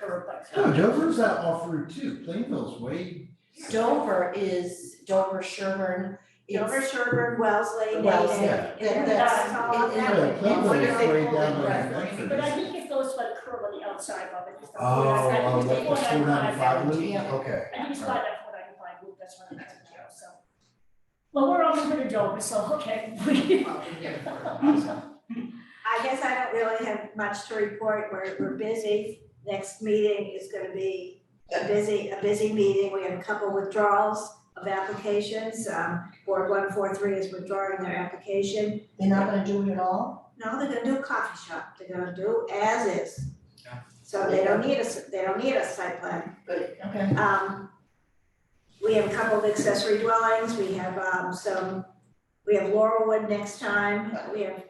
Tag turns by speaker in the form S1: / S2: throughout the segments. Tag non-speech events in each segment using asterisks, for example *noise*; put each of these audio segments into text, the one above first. S1: Dover, but
S2: No, Dover's that off route too, Plainville's way,
S3: Dover is Dover, Sherburne,
S1: Dover,
S3: it's,
S1: Sherburn, Wellesley,
S3: Wellesley.
S1: Natick,
S2: yeah,
S3: that-
S1: That's all
S3: that's, it-
S1: that
S3: it-
S2: Yeah,
S3: it-
S2: Plainville
S3: what
S2: is
S3: do they
S2: way
S3: call it?
S2: down by
S3: Right.
S2: Medford.
S4: But I think it goes by the curve on the outside of it, it's the
S2: oh,
S4: four ninety
S2: uh,
S4: five,
S2: what, the four ninety-five loop,
S3: Yeah.
S2: okay.
S4: I think it's by that four ninety five loop, that's what I'm asking you, so. Well, we're all moving to Dover, so, okay, *laughs* we,
S1: I guess I don't really have much to report, we're, we're busy. Next meeting is gonna be a busy, a busy meeting, we have a couple withdrawals of applications, um, Board one four three is withdrawing their application.
S3: They're not gonna do it at all?
S1: No, they're gonna do a coffee shop, they're gonna do as is.
S5: Yeah.
S1: So they don't need a, s- they don't need a site plan.
S3: Okay,
S1: Um, we have a couple of accessory dwellings, we have, um, some, we have Laurelwood next time, we have,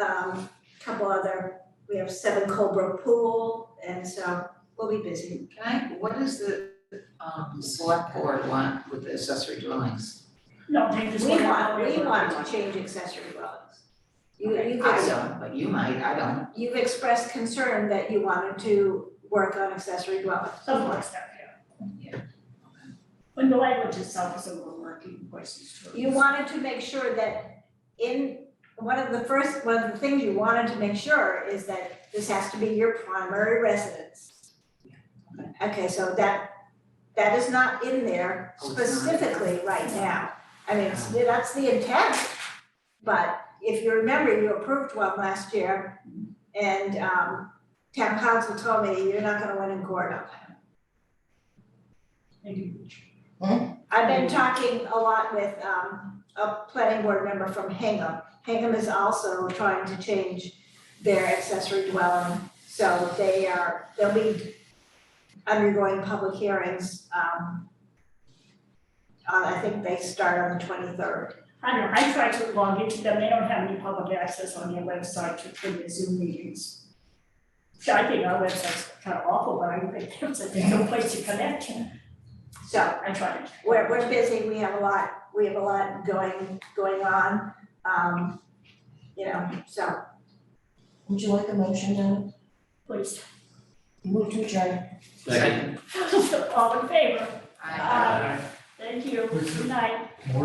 S1: um, a couple other, we have Seven Cobra Pool, and so we'll be busy.
S6: Can I, what is the, um, select board want with the accessory dwellings?
S4: no, they just.
S1: We want,
S4: to-
S1: we want to change accessory dwellings. You, you've,
S6: I
S1: ex-
S6: don't, but you might, I don't.
S1: you've expressed concern that you wanted to work on accessory dwellings.
S4: Something like that, yeah.
S6: Yeah.
S4: When the language itself is a little murky, voices too.
S1: You wanted to make sure that in, one of the first, one of the things you wanted to make sure is that this has to be your primary residence. Okay, so that, that is not in there
S6: Oh, it's not.
S1: specifically right now. I mean, it's- that's the intent. But if you remember, you approved one last year and um town council told me you're not gonna win in court on that.
S4: Maybe we
S1: I've been talking a lot with um a planning board member from Hingham. Hingham is also trying to change their accessory dwelling, so they are, they'll be undergoing public hearings. Um uh, I think they start on the twenty-third.
S4: I don't know, I tried to log into them, they don't have any public access on their website to for their Zoom meetings. So I think our website's kind of awful, but I think there's a- there's no place to connect,
S1: So
S4: I tried.
S1: we're we're busy, we have a lot, we have a lot going going on. Um you know, so
S3: would you like a motion then?
S4: Please, *laughs*
S3: Move to adjourn.
S5: Second.
S4: all in favor,
S6: I-
S4: Aye. thank you,
S2: Which is-
S4: good night.